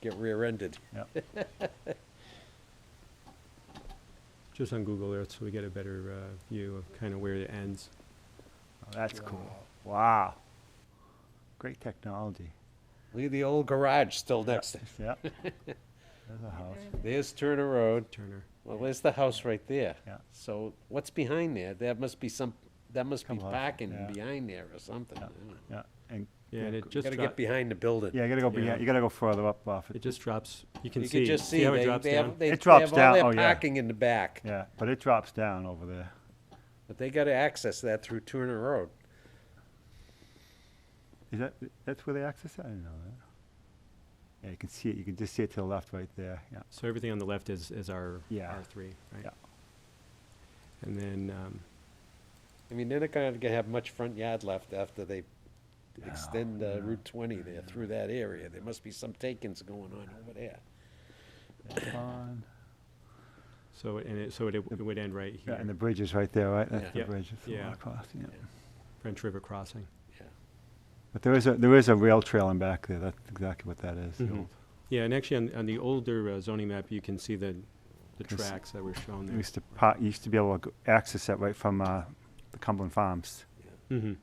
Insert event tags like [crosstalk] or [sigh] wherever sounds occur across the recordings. get rear-ended. [laughs] Yep. Oh, just on Google Earth, so we get a better uh, view of kind of where it ends. Oh, That's cool. Wow. Great technology. Leave the old garage still next to it. Yep. [laughs] There's a house. There's Turner Road. Turner. Well, there's the house right there. Yeah. So what's behind there? That must be some, that must be Come on, parking yeah. behind there or something. Yeah. I don't know. Yeah, and. Yeah, and it go- just Gotta drop- get behind the building. Yeah, you gotta go, yeah. behind- you gotta go further up off it it. just drops. You can You see. could just see, how it they, drops they down. have, they It they have drops all down, their oh, yeah. parking in the back, Yeah, but it drops down over there. but they gotta access that through Turner Road. Is that, that's where they access it? I didn't know that. Yeah, you can see it, you can just see it to the left right there, yeah. So everything on the left is is our Yeah. R three, right? Yeah. And then um, I mean, they're not gonna have much front yard left after they extend uh, Route twenty there through that area. There must be some takings going on over there. That pond. so and it so it, it would end right here, Yeah, and the bridge is right there, right? That's the Yeah. bridge. that's the one Yeah. across, yeah. French River crossing. Yeah. But there is a, there is a rail trail in back there, that's exactly what that is. the Mhm. old- Yeah, and actually on, on the older uh, zoning map, you can see the the Can see- tracks that were shown We there. used to, pa- you used to be able to go- access that right from, uh, the Cumberland Farms. Mm-hmm.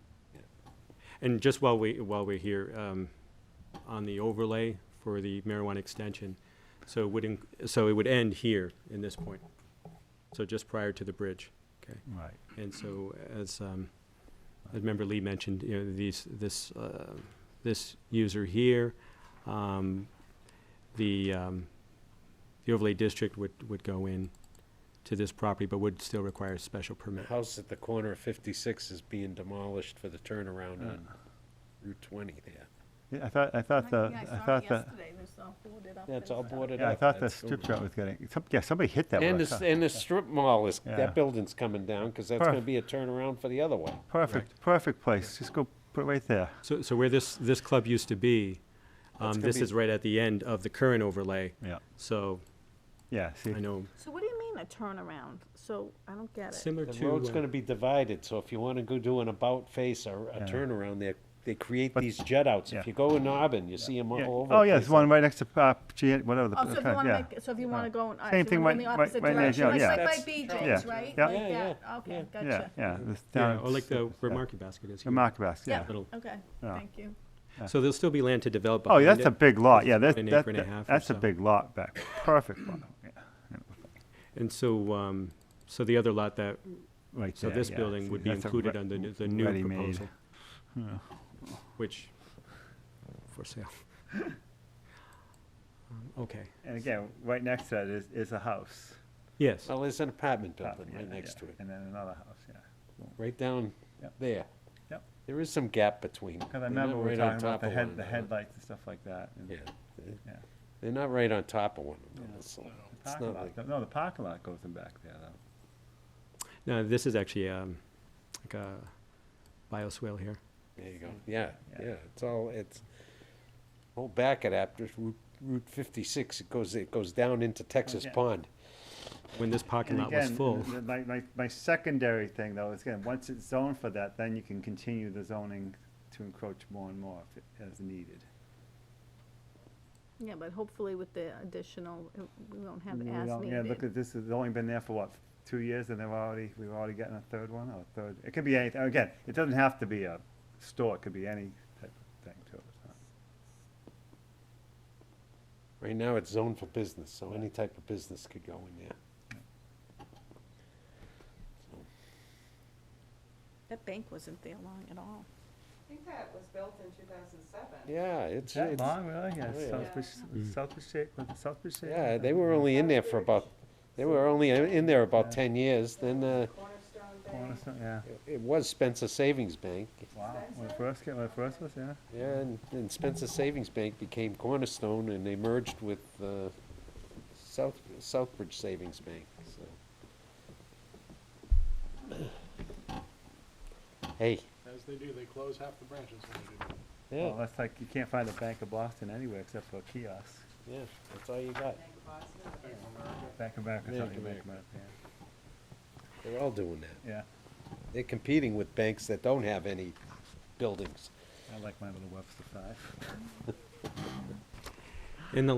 And just while we, while we're here, um, on the overlay for the marijuana extension, so it would, inc- so it would end here in this point. So just prior to the bridge, okay? Right. And so as, um, as member Lee mentioned, you know, these, this, uh, this user here, um, the, um, the overlay district would, would go in to this property, but would still require a special permit. The house at the corner of fifty-six is being demolished for the turnaround on Ah. Route twenty there. Yeah, I thought, I thought the, I thought the, Yeah, it's all boarded up. yeah, I thought the That's strip over. joint was getting, some- yeah, somebody hit that. And with a the, s- car. and the strip mall is, Yeah. that building's coming down, cause that's gonna Perfect. be a turnaround for the other one. Perfect, perfect place, just go put it right there. So, so where this, this club used to be, That's um, gonna this be- is right at the end of the current overlay, Yeah. so Yeah, see, I know, So what do you mean a turnaround? So I don't get it. similar The to. road's uh, gonna be divided, so if you wanna go do an about face or a Yeah. turnaround there, they create But- these jet outs. yeah. If you go in Auburn, you see them Yeah. all over. Oh, the yeah, there's place. one right next to, uh, G, whatever the. Oh, so if you yeah. want to make, so if you want to go in, alright, Same so thing you wanna go in right- the right- right opposite there, direction, like yeah. like by That's BJ's, Charles, right? yeah. Like Yeah, that. yeah. Okay, Yeah, gotcha. yeah. this Yeah, down or like the, s- where yeah. market basket is The here. market basket, Yeah. yeah. Little- Okay, Yeah. thank you. So there'll still be land to develop Oh, behind it. yeah, that's a big lot, yeah, It's that's, about an that- acre and a half that- or that's a so. big lot back, perfect lot, yeah, And so, um, so the other lot that, right so there, this yeah. building See, would be that's a included re- under the- the w- new ready-made. proposal, which, for sale. [laughs] Um, Okay, And again, right next to that is, is a house. yes, Well, there's an apartment top, building yeah, right yeah, next to it, And then another house, yeah. right down Yep. there. Yep. There is some gap between. Because I They're remember not we were right on talking about top the of head, one the another. headlights and stuff like that. and- Yeah. They- Yeah. They're not right on top of one another, Yeah. so The it's parking not lot like, go- No, the parking lot goes in back there, though. no, this is actually, um, like a bioswale here. there you go, yeah, Yeah. yeah, it's all, it's, whole back at after Route, Route fifty-six, it goes, it goes down into Texas yeah. Pond. When this parking lot was full, My, my, my secondary thing, though, is again, once it's zoned for that, then you can continue the zoning to encroach more and more if, it- as needed. Yeah, but hopefully with the additional, it- we won't have We don't- as Yeah, look, needed. at this has only been there for what, two years, and they've already, we've already gotten a third one, or a third, it could be anything, again, it doesn't have to be a store, it could be any type of thing to it. so. Right now, it's zoned for business, so any type of business could go in there. That bank wasn't there long at all. I think that was built in two thousand seven. Yeah, it's, That it's, long, really? Yeah, Oh, yeah. Mm. Southbridge, Southbridge shape, was it Southbridge shape? yeah, they were only in there for about, they were only in there about ten years, then, uh, Cornerstone Bank. Cornerstone, yeah. it- it was Spencer Savings Bank, Wow, when it first came, when it first was, yeah. yeah, and, and Spencer Savings Bank became Cornerstone, and they merged with, uh, South, Southbridge Savings Bank, so. [clears throat] Hey, As they do, they close half the branches when they do that. Well, yeah, that's like, you can't find a Bank of Boston anywhere except for a kiosk. yeah, that's all you got, Bank of Boston. Bank of America. Bank of America, Bank something of like that, they're all doing that, yeah. they're competing with banks that don't have any buildings. Yeah, I like my little Webster five. in the